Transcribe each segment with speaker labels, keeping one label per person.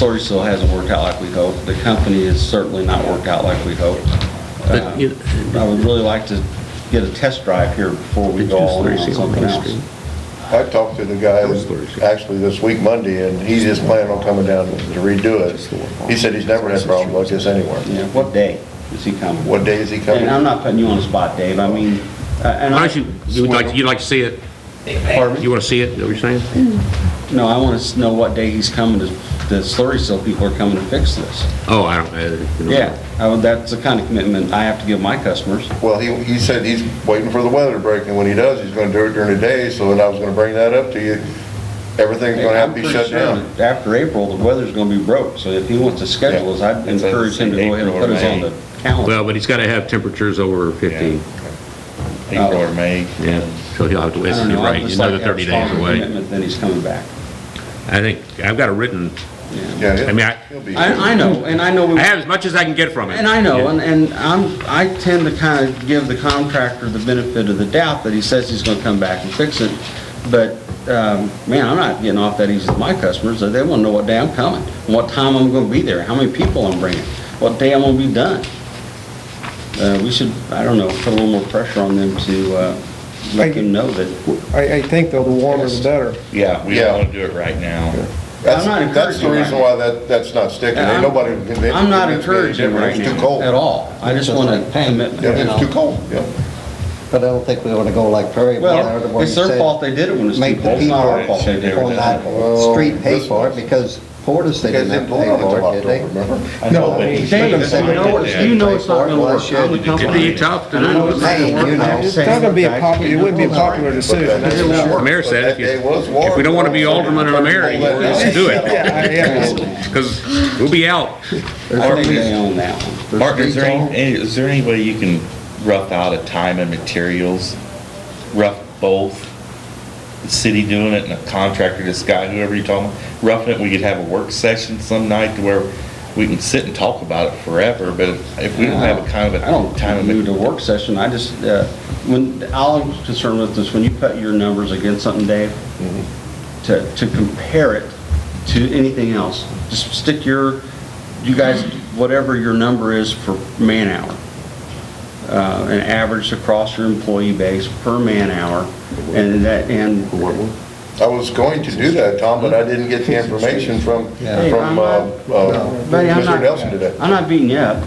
Speaker 1: Slurryville hasn't worked out like we hoped. The company has certainly not worked out like we hoped.
Speaker 2: But
Speaker 1: Uh,
Speaker 2: you-
Speaker 1: I would really like to get a test drive here before we
Speaker 2: Did
Speaker 1: go
Speaker 2: you
Speaker 1: all in
Speaker 2: slurry
Speaker 1: on
Speaker 2: seal
Speaker 1: something
Speaker 2: Main
Speaker 1: else.
Speaker 2: Street?
Speaker 3: I talked to the guy that- actually this week Monday, and he's just planning on coming down to redo it. He said he's never had a problem like this anywhere.
Speaker 1: Yeah, What day is he coming?
Speaker 3: What day is he coming?
Speaker 1: And I'm not putting you on the spot, Dave. I mean, uh, and
Speaker 2: Why
Speaker 1: I...
Speaker 2: don't you, you'd like, you'd like to see it?
Speaker 1: Pardon me?
Speaker 2: You want to see it, is that what you're saying?
Speaker 1: No, I want to know what day he's coming to, the Slurryville people are coming to fix this.
Speaker 2: Oh, I don't, I don't know.
Speaker 1: Mm-hmm. Yeah, I would- that's the kind of commitment I have to give my customers.
Speaker 3: Well, he, he said he's waiting for the weather to break, and when he does, he's gonna do it during the day, so then I was gonna bring that up to you. Everything's gonna have to be
Speaker 1: I'm pretty
Speaker 3: shut
Speaker 1: sure
Speaker 3: down.
Speaker 1: that After April, the weather's gonna be broke, so if he wants to schedule us, I'd
Speaker 4: It's on
Speaker 1: encourage him to go ahead and
Speaker 4: April
Speaker 1: put
Speaker 4: or
Speaker 1: us on
Speaker 4: May.
Speaker 1: the calendar.
Speaker 2: Well, but he's got to have temperatures over 50,
Speaker 4: April or May.
Speaker 2: yeah, so he'll have to,
Speaker 1: I
Speaker 2: it's
Speaker 1: don't know, I'd
Speaker 2: right,
Speaker 1: just
Speaker 2: another
Speaker 1: like to have
Speaker 2: 30 days
Speaker 1: stronger
Speaker 2: away.
Speaker 1: commitment, Then he's coming back.
Speaker 2: I think, I've got it written,
Speaker 3: Yeah,
Speaker 2: I
Speaker 3: he'll-
Speaker 2: mean, I-
Speaker 3: he'll be.
Speaker 1: I, I know, and I know, we-
Speaker 2: I have as much as I can get from it.
Speaker 1: and I know,
Speaker 2: Yeah.
Speaker 1: and, and I'm, I tend to kind of give the contractor the benefit of the doubt that he says he's gonna come back and fix it, but, um, man, I'm not getting off that easy with my customers, they wanna know what day I'm coming, what time I'm gonna be there, how many people I'm bringing, what day I'm gonna be done. Uh, we should, I don't know, put a little more pressure on them to, uh, let them know that,
Speaker 5: I, I think though, the warmer the better.
Speaker 4: Yeah, we
Speaker 3: Yeah.
Speaker 4: don't want to do it right now.
Speaker 3: That's,
Speaker 1: I'm not
Speaker 3: that's the
Speaker 1: encouraging
Speaker 3: reason
Speaker 1: right
Speaker 3: why that, that's not sticking.
Speaker 1: And I'm-
Speaker 3: Ain't nobody can convince.
Speaker 1: I'm not
Speaker 3: convince me any
Speaker 1: encouraging
Speaker 3: different.
Speaker 1: right
Speaker 3: It's too
Speaker 1: now,
Speaker 3: cold.
Speaker 1: at all, I just want a commitment.
Speaker 3: Yeah, it's too cold, yeah.
Speaker 6: But I don't think we want to go like Prairie Barn.
Speaker 1: Well, it's their fault they did it when it's too
Speaker 6: Make the
Speaker 1: cold, it's not our fault they
Speaker 4: people-
Speaker 1: did it.
Speaker 6: Well, not
Speaker 3: Well,
Speaker 6: street pay
Speaker 3: this
Speaker 6: for it
Speaker 3: was-
Speaker 6: because Portis, they
Speaker 3: Because
Speaker 6: didn't
Speaker 3: they
Speaker 6: have to
Speaker 3: pulled
Speaker 6: pay
Speaker 3: out until
Speaker 6: for it, did
Speaker 3: October,
Speaker 6: they?
Speaker 3: remember?
Speaker 6: No,
Speaker 1: Dave, you know, it's- you know it's not gonna work. I'm the
Speaker 2: It'd
Speaker 1: company.
Speaker 2: be tough to
Speaker 1: And I know
Speaker 2: do.
Speaker 1: it's not gonna work.
Speaker 6: Hey, you know,
Speaker 5: It's not gonna be a popular, it wouldn't be a popular decision. that's for sure.
Speaker 2: The mayor said, if you-
Speaker 3: But that day was warm.
Speaker 2: if we don't want to be alderman and a mayor,
Speaker 3: Pull that
Speaker 2: let's
Speaker 3: down.
Speaker 2: do it,
Speaker 5: Yeah, I- yeah.
Speaker 2: because we'll be out.
Speaker 1: I think they own that one.
Speaker 4: Mark, is there any, any- is there any way you can rough out a time and materials? Rough both? The city doing it and a contractor, this guy, whoever you're talking, about, roughing it, we could have a work session some night to where we can sit and talk about it forever, but if we don't have a kind of
Speaker 1: I don't
Speaker 4: a time and
Speaker 1: do the work session, I just, uh, when, all I'm concerned with is when you put your numbers against something, Dave,
Speaker 4: Mm-hmm.
Speaker 1: to, to compare it to anything else, just stick your, you guys, whatever your number is for man-hour, uh, an average across your employee base per man-hour, and that, and
Speaker 3: I was going to do that, Tom, but I didn't get the information from, from
Speaker 6: Yeah.
Speaker 1: Hey, I'm
Speaker 3: uh,
Speaker 1: not-
Speaker 3: uh,
Speaker 1: Buddy, I'm
Speaker 3: Mr.
Speaker 1: not-
Speaker 3: Nelson today.
Speaker 1: I'm not beating you up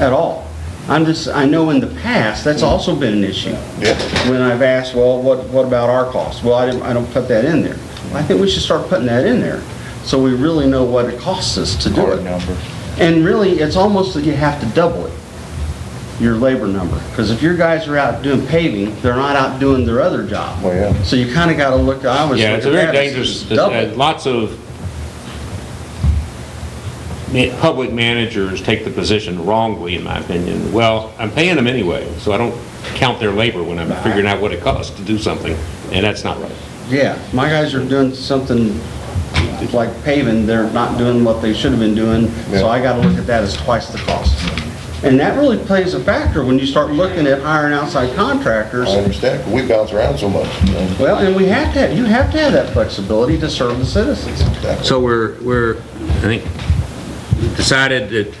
Speaker 1: at all. I'm just, I know in the past, that's also been an issue.
Speaker 3: Mm-hmm. Yeah,
Speaker 1: When I've asked, well, what, what about our costs? Well, I didn't, I don't put that in there. Well, I think we should start putting that in there, so we really know what it costs us to do
Speaker 4: hard
Speaker 1: it.
Speaker 4: number.
Speaker 1: And really, it's almost that you have to double it, your labor number. Because if your guys are out doing paving, they're not out doing their other job.
Speaker 3: Well, yeah.
Speaker 1: So you kind of got to look, I was.
Speaker 2: Yeah, it's a
Speaker 1: looking
Speaker 2: very
Speaker 1: at it,
Speaker 2: dangerous,
Speaker 1: double.
Speaker 2: uh, lots of ma- public managers take the position wrongly, in my opinion. Well, I'm paying them anyway, so I don't count their labor when I'm figuring out what it costs to do something, and that's not right.
Speaker 1: Yeah, my guys are doing something like paving, they're not doing what they should have been doing, so I gotta look at that as twice the cost. And that really plays a factor when you start looking at hiring outside contractors.
Speaker 3: I understand, but we bounce around so much. you know.
Speaker 1: Well, and we have to, you have to have that flexibility to serve the citizens.
Speaker 2: So we're, we're, I think, decided that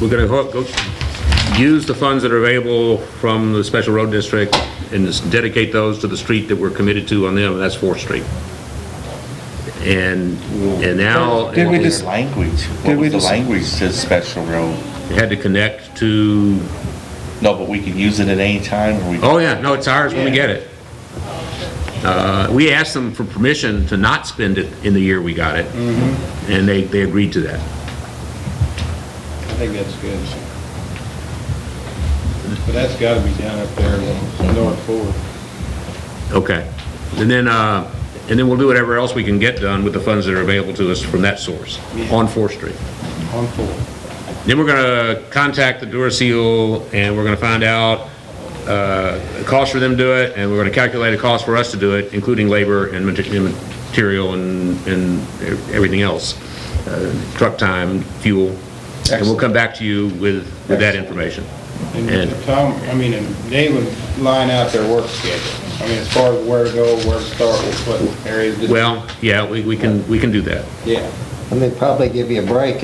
Speaker 2: we're gonna hook, go, use the funds that are available from the special road district and just dedicate those to the street that we're committed to on them, and that's Fourth Street. And, and now,
Speaker 5: Did we
Speaker 2: it
Speaker 5: just-
Speaker 4: Their Language,
Speaker 5: did
Speaker 4: what
Speaker 5: we
Speaker 4: was the
Speaker 5: just-
Speaker 4: language to special road?
Speaker 2: had to connect to,
Speaker 4: No, but we can use it at any time, or we.
Speaker 2: oh yeah, no, it's ours when we get it. Uh, we asked them for permission to not spend it in the year we got it,
Speaker 5: Mm-hmm.
Speaker 2: and they, they agreed to that.
Speaker 7: I think that's good. But that's gotta be down up there, uh, north forward.
Speaker 2: Okay. And then, uh, and then we'll do whatever else we can get done with the funds that are available to us from that source on Fourth Street.
Speaker 7: On four.
Speaker 2: Then we're gonna contact the Duracell and we're gonna find out, uh, the cost for them to do it, and we're gonna calculate a cost for us to do it, including labor and mate- and material and, and everything else. Uh, Truck time, fuel, and we'll come back to you with, with that information.
Speaker 7: And Tom, I mean, and they would line out their work schedule. I mean, as far as where to go, where to start, with what areas. to-
Speaker 2: Well, yeah, we, we can, we can do that.
Speaker 7: Yeah.
Speaker 6: and they probably give you a break